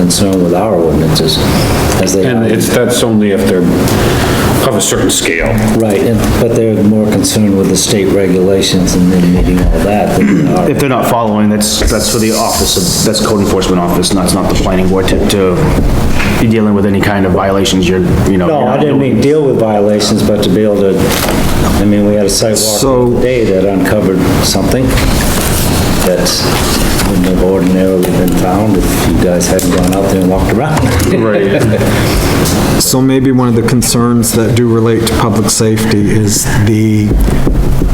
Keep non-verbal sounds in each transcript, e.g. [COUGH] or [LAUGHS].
concern with our ordinances as they And are. it's, that's only if they're of a certain scale. Right, and- but they're more concerned with the state regulations and then meeting all that than they are. If they're not following, that's, that's for the office, of- that's code enforcement office, not, it's not the planning board to, to be dealing with any kind of violations you're, you know. No, I didn't mean deal with violations, but to be able to, I mean, we had a So- sidewalk today that uncovered something that wouldn't have ordinarily been found if you guys hadn't gone out there and walked around. Right. So maybe one of the concerns that do relate to public safety is the,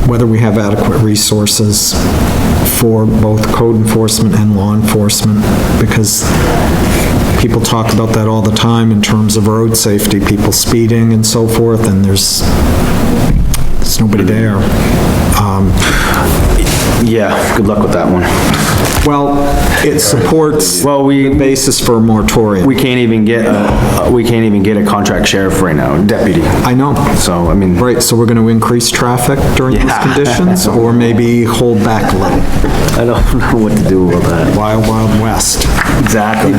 whether we have adequate resources for both code enforcement and law enforcement, because people talk about that all the time in terms of road safety, people speeding and so forth, and there's, there's nobody there. Um, [LAUGHS] Yeah, good luck with that one. Well, it supports Well, the we, basis for a moratorium. we can't even get, a- we can't even get a contract sheriff right now, deputy. I know. So, I mean, Right, so we're going to increase traffic during these Yeah. conditions, or maybe hold back a little? I don't [LAUGHS] know what to do about that. Wild, wild west. [LAUGHS] Exactly.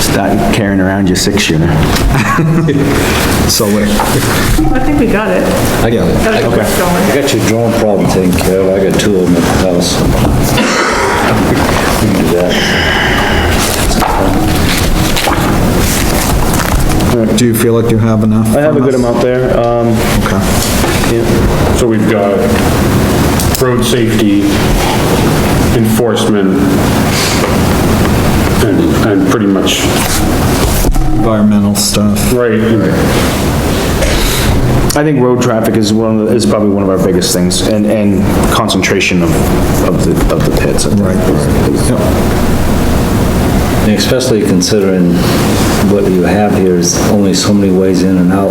Start carrying around your six-shooter. So, uh, I think we got it. I got it. Got it [LAUGHS] I going. got your drone problem taken care of, I got two of them at the house. [LAUGHS] We can do that. do you feel like you have enough? I have a good amount there, um, Okay. So we've got road safety, enforcement, and, and pretty much, Environmental stuff. right, and I think road traffic is one of, the- is probably one of our biggest things, and, and concentration of, of the, of the pits. I think. And Especially considering what you have here is only so many ways in and out.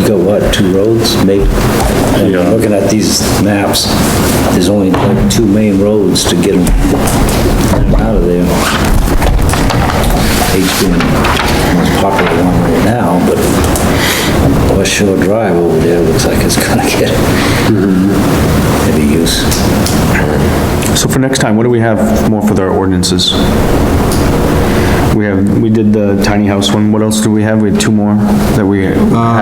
You got what, two roads, maybe? And Yeah. Looking at these maps, there's only like two main roads to get them out of there. H being the most popular one right now, but West Shore Drive over there looks like it's gonna get heavy use. So for next time, what do we have more for their ordinances? We have, we did the tiny house one, what else do we have? We had two more that we had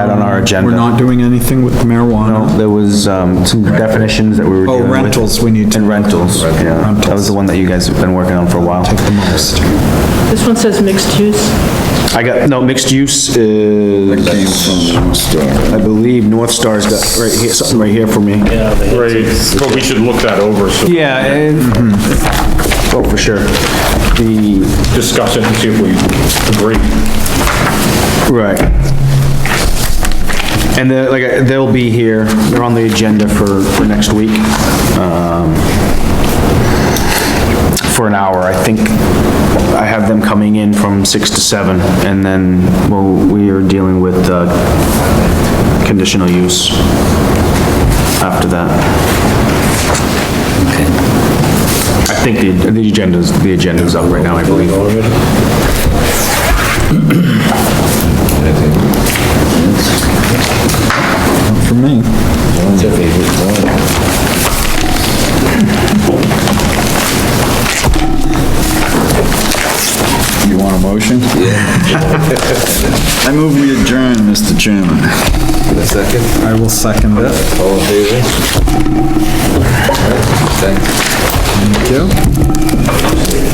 on our agenda. Uh, We're not doing anything with marijuana. No, There was, um, some definitions that we were Oh, dealing with. rentals, we need to- And rentals, yeah. That was the one that you guys have been working on for a while. Take the most. This one says mixed use. I got, no, mixed use is, I believe North Star's got, right here, something right here for me. right, but we should look that over, so Yeah, and, oh, for sure. The, discuss it and see if we agree. right. And they're, like, they'll be here, they're on the agenda for, for next week. um, For an hour, I think. I have them coming in from six to seven, and then, well, we are dealing with, uh, conditional use after that. I think the, the agenda's, the agenda's up right now, I believe. For me, You want a motion? Yeah. [LAUGHS] I move we adjourn, Mr. Chairman. I will second that. Thank you.